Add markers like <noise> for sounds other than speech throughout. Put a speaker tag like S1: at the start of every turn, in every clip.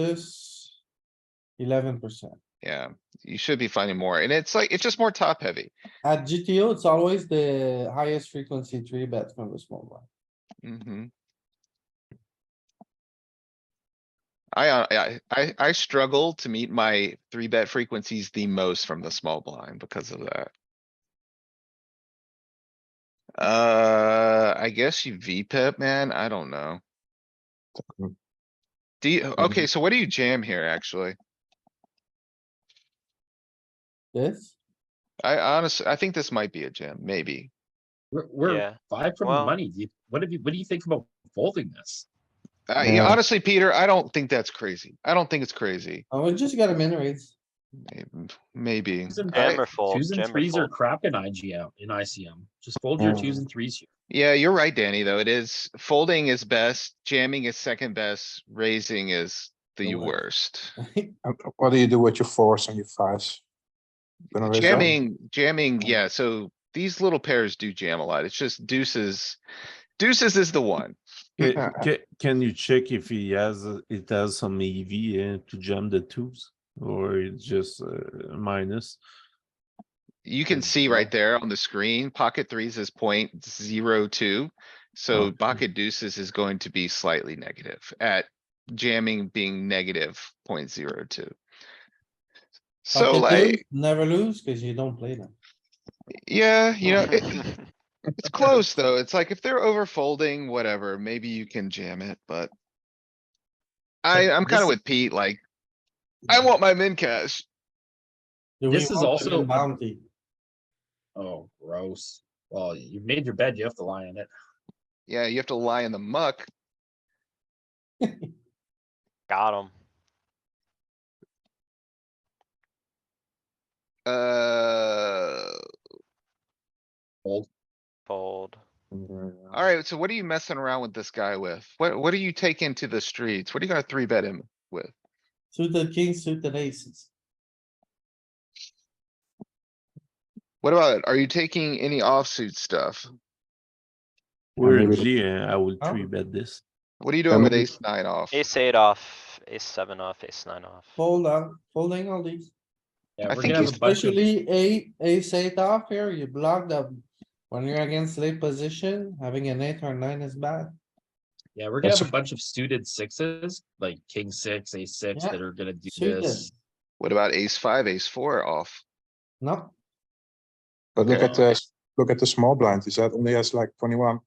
S1: versus eleven percent.
S2: Yeah, you should be finding more. And it's like, it's just more top heavy.
S1: At GTO, it's always the highest frequency three bet from the small blind.
S2: hmm I, uh, I, I, I struggle to meet my three bet frequencies the most from the small blind because of that. Uh, I guess you VPip, man. I don't know.
S3: Mm.
S2: Do you, okay, so what do you jam here, actually?
S1: This,
S2: I honestly, I think this might be a jam, maybe.
S3: We're, we're
S4: Yeah.
S3: five from the
S4: Well-
S3: money. Do you- What have you, what do you think about folding this?
S2: Uh, yeah,
S1: Yeah.
S2: honestly, Peter, I don't think that's crazy. I don't think it's crazy.
S1: I would Oh, just get a min raise. <laughs>
S2: May- Maybe.
S3: Twos and-
S2: I-
S4: Jam or fold?
S3: Twos and
S4: jam or
S3: threes are
S4: fold?
S3: crap in IGM, in ICM. Just fold your twos and threes here.
S2: Yeah, you're right, Danny, though. It is folding is best, jamming is second best, raising is the
S1: The worst.
S2: worst. Um,
S5: Uh, What do you do with your fours and your fives? Gonna raise up?
S2: Jamming, jamming, yeah, so these little pairs do jam a lot. It's just deuces. Deuces is the one.
S6: Ca- ca- Can you check if he has, uh, it has some EV uh, to jam the tubes or it's just uh, minus?
S2: You can
S6: Good
S2: see right
S6: call.
S2: there on the screen, pocket threes is point zero two. So
S6: Okay.
S2: pocket deuces is going to be slightly negative at jamming being negative point zero two. So
S1: Pocket deuce,
S2: like,
S1: Never lose cuz you don't play them.
S2: yeah, you <laughs> know,
S4: <laughs>
S2: it- it's close though. It's like if they're over folding, whatever, maybe you can jam it, but. I,
S3: But
S2: I'm kinda
S3: this-
S2: with Pete, like, I want my min cash.
S1: Do we
S3: This is
S1: want to
S3: also-
S1: win Bounty.
S3: Oh, gross. Well, you've made your bed, you have to lie in it.
S2: Yeah, you have to lie in the muck.
S4: Got him.
S2: Uh.
S3: Fold.
S4: Fold.
S2: Alright, so what are you messing around with this guy with? What, what are you taking to the streets? What are you gonna three bet him with?
S1: Suited kings, suited aces.
S2: What about, are you taking any offsuit stuff?
S6: We're a
S5: maybe-
S6: G, uh, I would
S1: Oh.
S6: three bet this.
S2: What are you doing with
S5: maybe-
S2: ace nine off?
S4: Ace eight off, ace seven off, ace nine off.
S1: Fold out, folding all these.
S3: Yeah,
S2: I
S3: we're
S2: think
S3: gonna have a bunch of,
S1: Especially eight, ace eight off here, you block them. When you're against late position, having an eight or nine is bad.
S3: yeah, we're gonna have
S5: That's-
S3: a bunch of suited sixes, like king six, ace six,
S1: Yeah,
S3: that are gonna do
S1: Suited,
S3: this.
S2: What about ace five, ace four off?
S1: no,
S5: But look
S2: Okay.
S5: at the, look at the small blind, is that only has like twenty-one?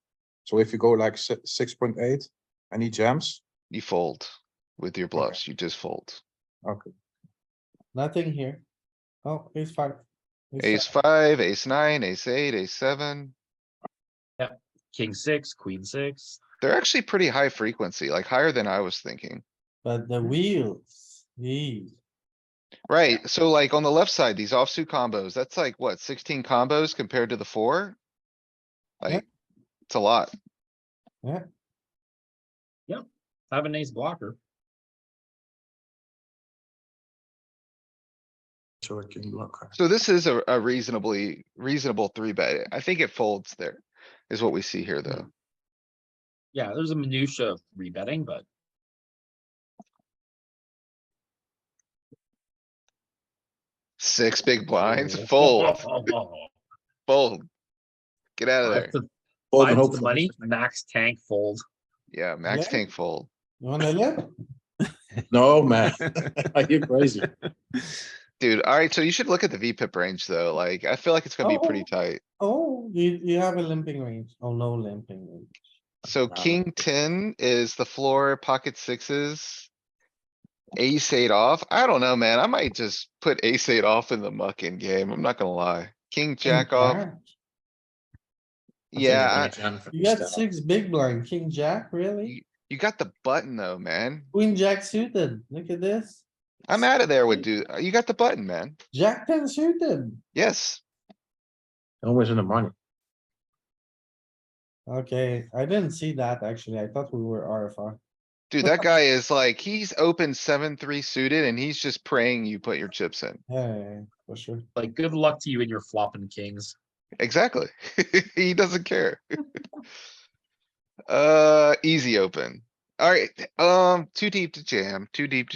S5: So if you go like six point eight, and he jams,
S2: You fold with your bluffs, you just fold.
S5: okay,
S1: nothing here. Oh, ace five.
S2: Ace
S1: seven.
S2: five, ace nine, ace eight, ace seven.
S3: King six, queen six.
S2: They're actually pretty high frequency, like higher than I was thinking.
S1: But the wheels, these,
S2: Right, so like on the left side, these offsuit combos, that's like what, sixteen combos compared to the four?
S1: Yeah.
S2: Like, it's a lot.
S3: Have an ace blocker.
S5: so I can block.
S2: So this is a, a reasonably reasonable three bet. I think it folds there is what we see here though.
S3: Yeah, there's a minutia of rebetting, but
S2: Six big
S3: <laughs>
S2: blinds, fold, fold. Get out of there.
S3: That's a Five
S5: Fold and
S3: to
S5: hope
S3: the
S5: for-
S3: money, max tank fold.
S2: Yeah, max
S1: Yeah.
S2: tank fold.
S1: you wanna live?
S5: No, man,
S6: <laughs>
S5: are you crazy?
S2: Dude, alright, so you should look at the V pip range though. Like, I feel like it's gonna be pretty
S1: Oh.
S2: tight.
S1: Oh, you, you have a limping range. Oh, no limping. range.
S2: So king ten is the floor, pocket sixes. Ace eight off. I don't know, man. I might just put ace eight off in the mucking game. I'm not gonna lie. King jack off. Yeah, I-
S1: You got six big blind, king jack,
S2: You-
S1: really?
S2: you got the button though, man.
S1: Queen jack suited, look at this.
S2: I'm out of there with dude. uh, You got the button, man.
S1: Jack ten suited.
S2: Yes.
S5: Always in the money.
S1: Okay, I didn't see that actually. I thought we were RFR.
S2: Dude, that guy is like, he's open seven, three suited and he's just praying you put your chips in.
S1: Yeah, yeah, yeah, for sure.
S3: Like, good luck to you and your flopping kings.
S2: Exactly. <laughs> He doesn't care. Uh, easy open. Alright, um, too deep to jam, too deep to